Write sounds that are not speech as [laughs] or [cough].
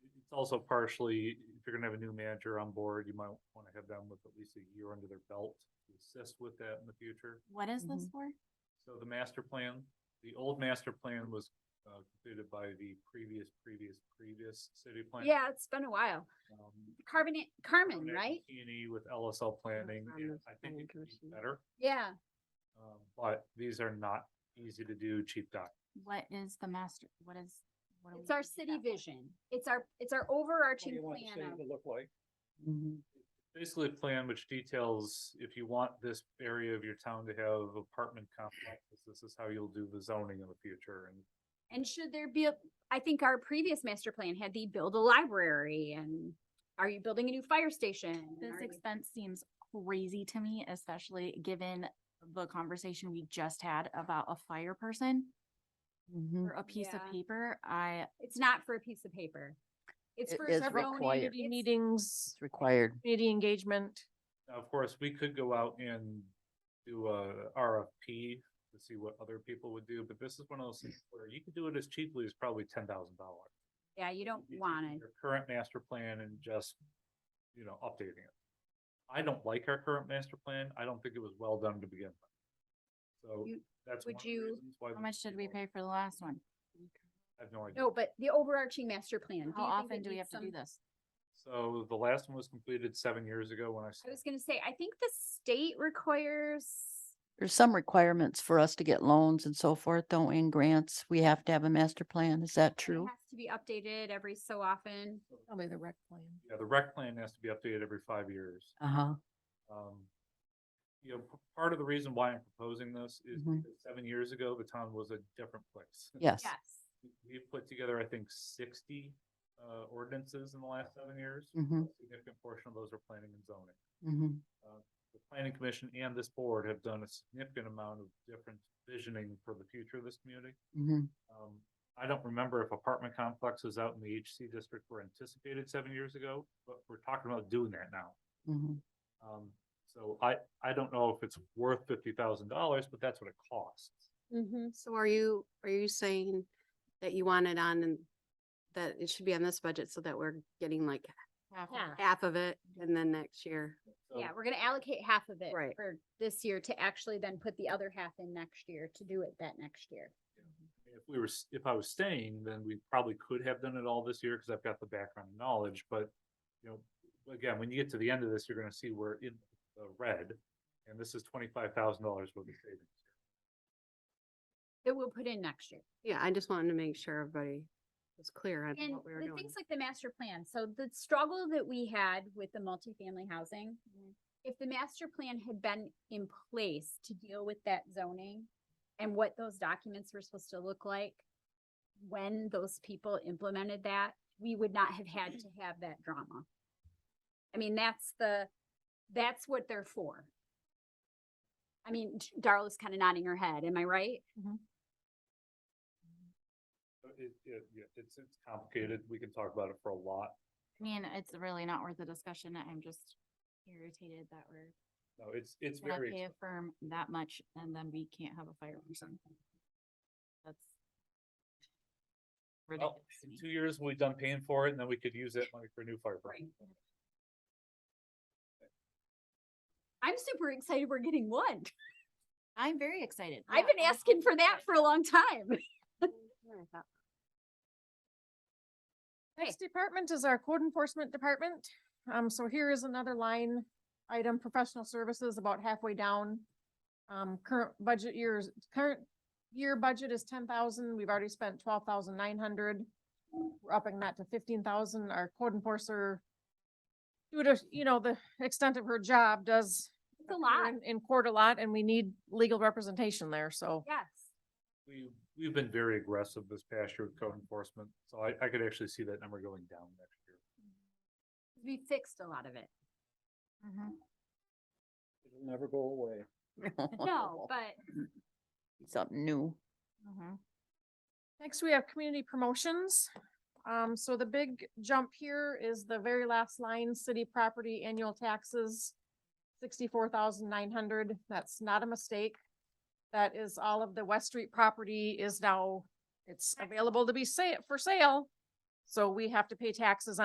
also partially, if you're gonna have a new manager on board, you might wanna have them with at least a year under their belt to assist with that in the future. What is this Mm-hmm. for? So the master plan, the old master plan was uh, completed by the previous, previous, previous city plan. Um, Yeah, it's been a while. Carbon, Carmen, right? E with LSL planning, on and the I think planning it could be commission. better, Yeah, um, but these are not easy to do cheap doc. What is the master, what is? what do it's we our need city that for? vision. It's our, it's our overarching plan. of- look like? Mm-hmm, Basically a plan which details if you want this area of your town to have apartment complexes, this is how you'll do the zoning in the future and And should there be, a? I think our previous master plan had the build a library and are you building a new fire station? And This are you- expense seems crazy to me, especially given the conversation we just had about a fire person mm-hmm. Mm-hmm. or a piece of Yeah. paper. I, It's not for a piece of paper. It's It for. is zoning, required. it's- Community meetings, It's required. community engagement. Now, of course, we could go out and do a RFP to see what other people would do, but this is one of those things where you could do it as cheaply as probably ten thousand dollars. Yeah, you don't want it. Your current master plan and just, you know, updating it. I don't like our current master plan. I don't think it was well done to begin with. So You- that's one would of the you- reasons why. how these much did we people- pay for the last one? I have no idea. No, but the overarching master plan. do How you think often it do we have needs to do some- this? So the last one was completed seven years ago when I. I started. was gonna say, I think the state requires There's some requirements for us to get loans and so forth, don't we, and grants? We have to have a master plan. Is that It true? Has to be updated every so often. Probably the rec plan. Yeah, the rec plan has to be updated every five years. Uh-huh. Um, you know, p- part of the reason why I'm proposing this is Mhm. because seven years ago, the town was a different place. [laughs] Yes. Yes. We put together, I think, sixty, uh, ordinances in the last seven years. Mhm. A Significant portion of those are planning and zoning. Mhm. The planning commission and this board have done a significant amount of different visioning for the future of this community. Mhm. Um, I don't remember if apartment complexes out in the HC district were anticipated seven years ago, but we're talking about doing that now. Mhm. Um, so I, I don't know if it's worth fifty thousand dollars, but that's what it costs. Mm-hmm. So are you, are you saying that you want it on and that it should be on this budget so that we're getting like Half of Yeah. it. half of it and then next year? So Yeah, we're gonna allocate half of it Right. for this year to actually then put the other half in next year to do it that next year. If we were, s- if I was staying, then we probably could have done it all this year, cause I've got the background knowledge, but, you know, again, when you get to the end of this, you're gonna see we're in the red, and this is twenty-five thousand dollars worth of savings. That we'll put in next year. Yeah, I just wanted to make sure everybody was clear on And what we were the doing. things like the master plan, so the struggle that we had with the multifamily housing. Mm-hmm. If the master plan had been in place to deal with that zoning and what those documents were supposed to look like. When those people implemented that, we would not have had [clears throat] to have that drama. I mean, that's the, that's what they're for. I mean, Darla's kind of nodding her head, am I right? So It, it, yeah, it's, it's complicated, we can talk about it for a lot, I mean, it's really not worth the discussion. I'm just irritated that we're no, it's, it's gonna very. pay a firm that much and then we can't have a fire person. That's ridiculous. Well, to in me. Oh, two years, we'll be done paying for it, and then we could use that money for a new fire department. I'm super excited we're getting one. I'm very excited. I've been asking for that for a long time. Next department is our code enforcement department. Um, so here is another line item, professional services about halfway down. Um, current budget years, current year budget is ten thousand. We've already spent twelve thousand nine hundred. We're upping that to fifteen thousand. Our code enforcer due to, you know, the extent of her job does It's a appear lot, in- In court a lot and we need legal representation there, so. yes. We, we've been very aggressive this past year with code enforcement, so I, I could actually see that number going down next year. We fixed a lot of it. Mhm. It'll never go away. [laughs] No, but mm-hmm. Something new. Mhm. Next, we have community promotions. Um, so the big jump here is the very last line, city property annual taxes. Sixty-four thousand nine hundred, that's not a mistake. That is all of the West Street property is now, it's available to be sa- for sale. So we have to pay taxes